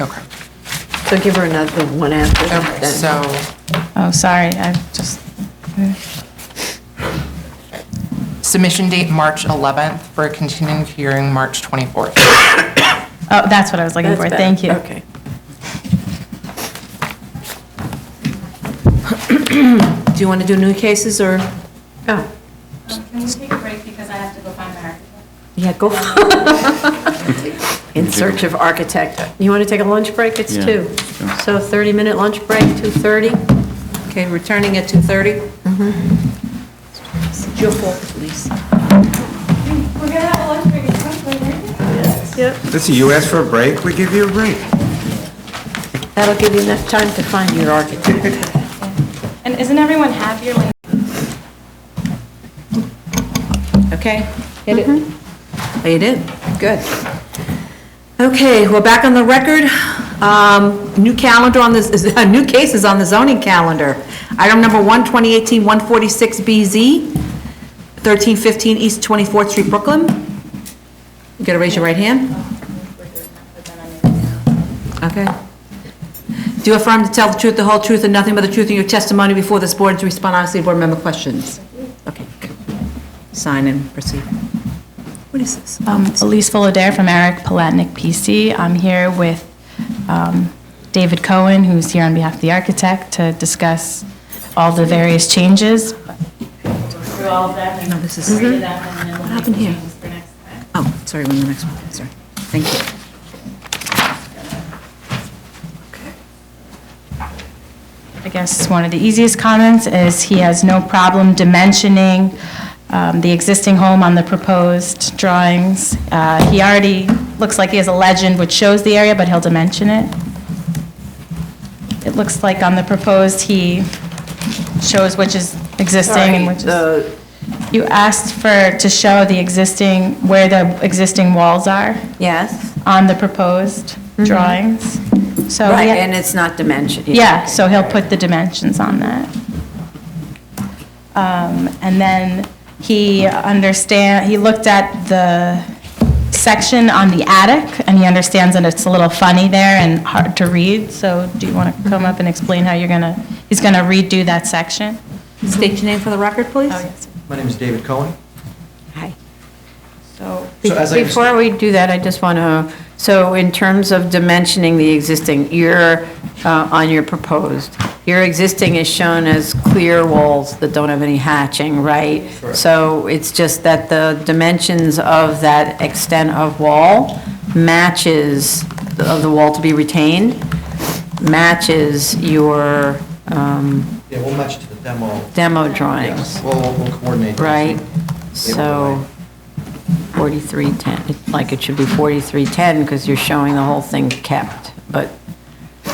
Okay. So give her another one after that. Okay, so, then. Oh, sorry, I just, submission date, March 11th, for a continuing hearing, March 24th. oh, that's what I was looking That's for, better. thank you. Okay. Do you want to do new cases or? Oh, Um, Can we take a break because I have to go find my architect? yeah, go. In search of architect. You want to take a lunch break? It's Yeah, two. sure. So 30-minute lunch break, 2:30. Okay, returning at 2:30? Mm-hmm. It's your fault, please. We're gonna have a lunch break at some point, aren't we? Listen, you asked for a break, we give you a break. That'll give you enough time to find your architect. And isn't everyone happier when Okay, hit it? Oh, you did? Good. Okay, we're back on the record. Um, New calendar on this, is- new cases on the zoning calendar. Item number one, 2018-146BZ, 1315 East 24th Street, Brooklyn. You gotta raise your right hand. Okay. Do you affirm to tell the truth, the whole truth, and nothing but the truth in your testimony before this board and to respond honestly to board member questions? Okay. Sign and proceed. What is this? Um, Elise Fullader from Eric Palatnik PC. I'm here with um, David Cohen, who's here on behalf of the architect, to discuss all the various changes. through all of that No, and this is- read it out and then we'll make happened the here? changes for next time? Oh, sorry, we're on the next one, sorry. Thank you. I guess one of the easiest comments is he has no problem dimensioning um, the existing home on the proposed drawings. Uh, He already, looks like he has a legend which shows the area, but he'll dimension it. It looks like on the proposed, he shows which is existing and which is... You asked for, to show the existing, where the existing walls are Yes, on the proposed drawings. So, Mm-hmm. Oh, right, yeah- and it's not dimension. yeah, so he'll put the dimensions on that. Um, And then he understand, he looked at the section on the attic, and he understands that it's a little funny there and hard to read, so do you want to come up and explain how you're going to, he's going to redo that section? State your name for the record, Oh, please. My name is David Cohen. Hi. So, So as I Before understand- we do that, I just want to, so in terms of dimensioning the existing, you're, uh, on your proposed, your existing is shown as clear walls that don't have any hatching, right? So it's just that the dimensions of that extent of wall matches, of the wall to be retained, matches your um, Yeah, we'll match to the demo. demo drawings. Yes, We'll, we'll coordinate. that. Right, They so will 4310, it's like it should be 4310 because you're showing the whole thing kept, but,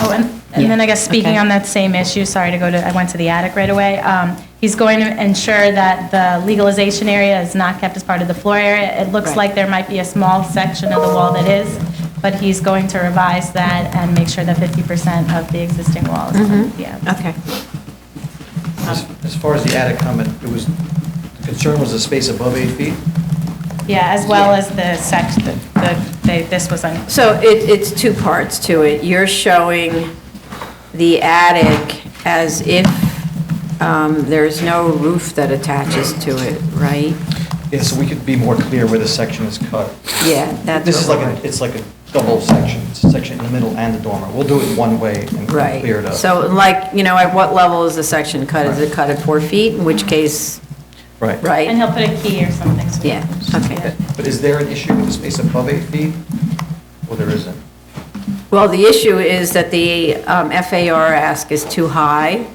Oh, and, and then I guess speaking Okay. on that same issue, sorry to go to, I went to the attic right away. Um, he's going to ensure that the legalization area is not kept as part of the floor area. It looks Right. like there might be a small section of the wall that is, but he's going to revise that and make sure that fifty percent of the existing wall is, on the attic. Mm-hmm. okay. As um, as far as the attic comment, it was, the concern was the space above eight feet. Yeah, as well as the section, the, the, they- this was on, So it, it's two parts to it. You're showing the attic as if um, there's no roof that attaches to it, right? Yeah, so we could be more clear where the section is cut. Yeah, that's This is what like, we're- a it's like a double section, It's a section in the middle and the dormer. We'll do it one way and clear it Right. up. So like, you know, at what level is the section cut? Is it cut at four feet, in which case, Right. right? and he'll put a key or something. so we Yeah, can- okay. yeah. But is there an issue with the space above eight feet? Well, there isn't. Well, the issue is that the um, FAR ask is too high,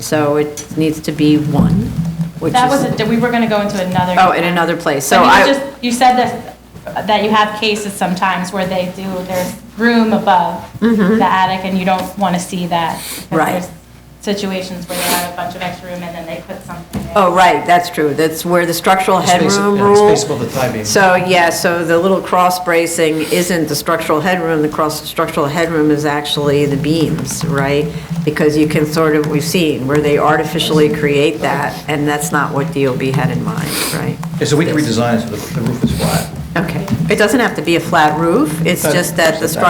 so it needs to be one, which That was, is, a- we were going to go into another. Oh, in another place. So But you I- just- You said that, that you have cases sometimes where they do, there's room above the attic and you don't want to see that. 'Cause Mm-hmm. Right. there's Situations where they have a bunch of extra room and then they put something there. oh, right, that's true, that's where the structural Space- headroom yeah, rule. Space above the tie beam. So, yeah, so the little cross bracing isn't the structural headroom, the cross structural headroom is actually the beams, right? Because you can sort of, we've seen, where they artificially create that, and that's not what DOB had in mind, right? Yeah, so we can redesign it so the the roof is flat. Okay, it doesn't have to be a flat roof, it's Uh, just that the it's a- structure